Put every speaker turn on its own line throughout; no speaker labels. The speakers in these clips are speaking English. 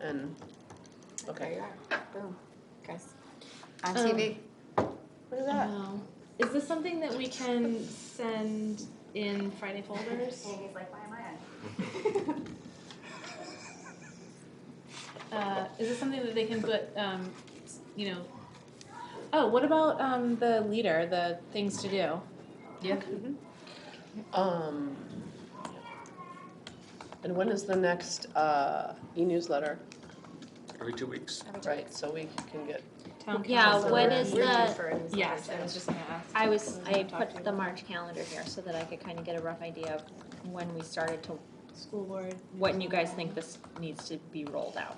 and,
There
okay.
you are. Boom. Guys. Um, On TV.
Look at that.
Wow. Is this something that we can send in Friday folders?
Katie's like, why am I on?
Uh, is this something that they can put, um, you know? Oh, what about um, the leader, the things to do?
Yeah. Um, and when is the next, uh, e-newsletter?
Every two weeks.
Right, so we can get,
Town
Yeah,
council.
when is
Um, We're due
the-
for a newsletter
Yes, I
soon.
was just gonna ask.
I was, I
Talk to
put
you.
the March calendar here so that I could kind of get a rough idea of when we started to,
School board.
what you guys think this needs to be rolled out.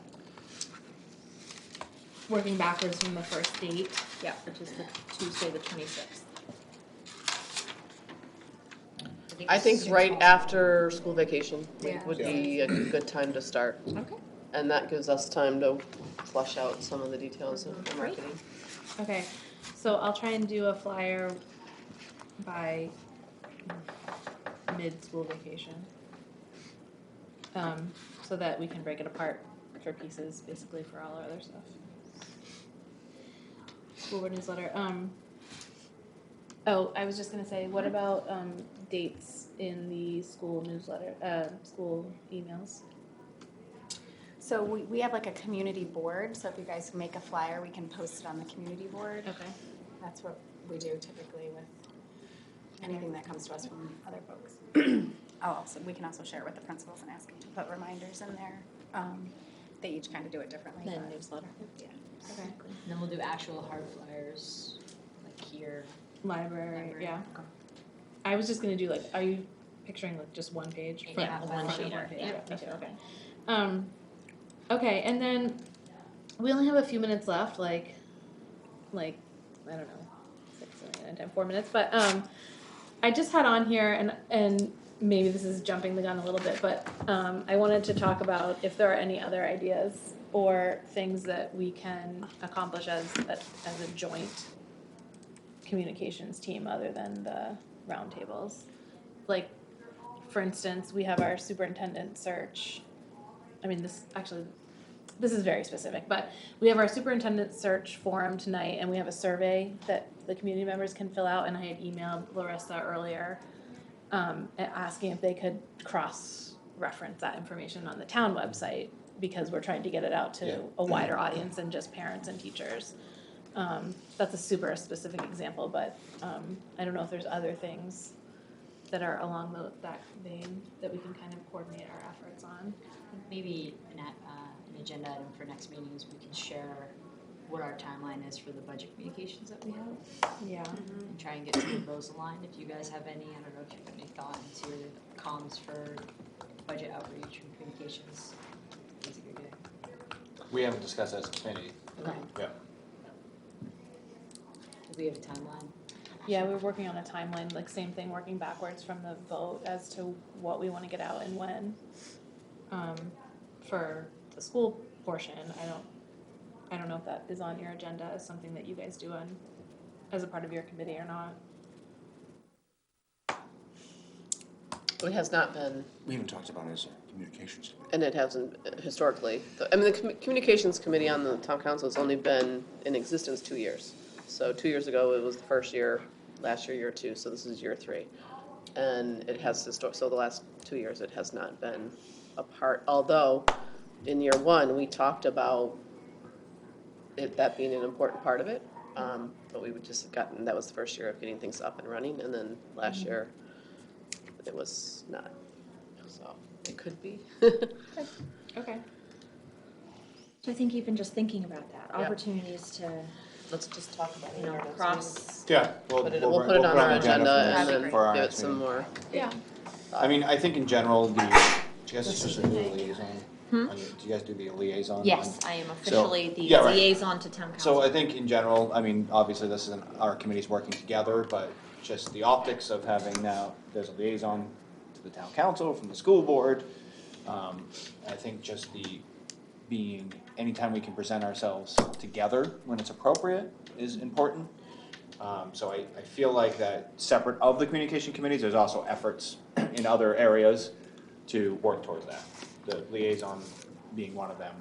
Working backwards from the first date.
Yeah, which is the Tuesday, the twenty-sixth.
I think right after school vacation
Yeah.
would be a good time to start.
Okay.
And that gives us time to flush out some of the details of the
Great.
marketing.
Okay, so I'll try and do a flyer by mid-school vacation. Um, so that we can break it apart for pieces, basically for all our other stuff. School board newsletter, um. Oh, I was just gonna say, what about, um, dates in the school newsletter, uh, school emails?
So we, we have like a community board, so if you guys make a flyer, we can post it on the community board.
Okay.
That's what we do typically with anything that comes to us from other folks. Oh, also, we can also share with the principals and ask them to put reminders in there. Um, They each kind of do it differently.
Then
but-
newsletter.
Okay.
And then we'll do actual hard flyers, like here.
Library, yeah. I was just gonna do like, are you picturing like just one page?
Yeah,
Front-
a
front
one
of
sheeter,
page,
yeah,
Me too, okay. Um, okay, and then we only have a few minutes left, like, like, I don't know, six, seven, eight, nine, ten, four minutes, but, um, I just had on here and, and maybe this is jumping the gun a little bit, but, um, I wanted to talk about if there are any other ideas or things that we can accomplish as, a- as a joint communications team other than the roundtables. Like, for instance, we have our superintendent search. I mean, this actually, this is very specific, but we have our superintendent search forum tonight, and we have a survey that the community members can fill out. And I had emailed Larissa earlier um, a- asking if they could cross reference that information on the town website because we're trying to get it out to
Yeah.
a wider audience than just parents and teachers. Um, that's a super specific example, but um, I don't know if there's other things that are along tho- that vein that we can kind of coordinate our efforts on.
Maybe an, a- uh, an agenda item for next meeting is we can share what our timeline is for the budget communications that we have
Yeah.
and try and get some of those aligned. If you guys have any, I don't know if you have any thought into comms for budget outreach and communications. Things that you're doing.
We haven't discussed that as a committee.
Okay.
Yeah.
Do we have a timeline?
Yeah, we were working on a timeline, like same thing, working backwards from the vote as to what we want to get out and when. Um, for the school portion, I don't, I don't know if that is on your agenda as something that you guys do on, as a part of your committee or not.
It has not been,
We haven't talked about it as a communications committee.
and it hasn't uh, historically. The- I mean, the commu- communications committee on the town council has only been in existence two years. So two years ago, it was the first year, last year, year two, so this is year three. And it has histor, so the last two years, it has not been a part, although in year one, we talked about it, that being an important part of it. Um, but we would just have gotten, that was the first year of getting things up and running, and then last year, it was not. So it could be.
Okay.
So I think even just thinking about that,
Yeah.
opportunities to,
Let's just talk about it.
you know,
in our next meeting.
cross.
Yeah.
Put it, we'll put it on our agenda and then
for our
give it
next
some
meeting.
more.
Yeah.
I mean, I think in general, the, do you guys specifically liaison?
Hmm?
Are you- Do you guys do the liaison?
Yes, I am officially the
yeah, right.
liaison to town council.
So I think in general, I mean, obviously this isn't our committees working together, but just the optics of having now, there's a liaison to the town council from the school board. Um, I think just the being, anytime we can present ourselves together when it's appropriate is important. Um, so I, I feel like that separate of the communication committees, there's also efforts in other areas to work towards that. The liaison being one of them.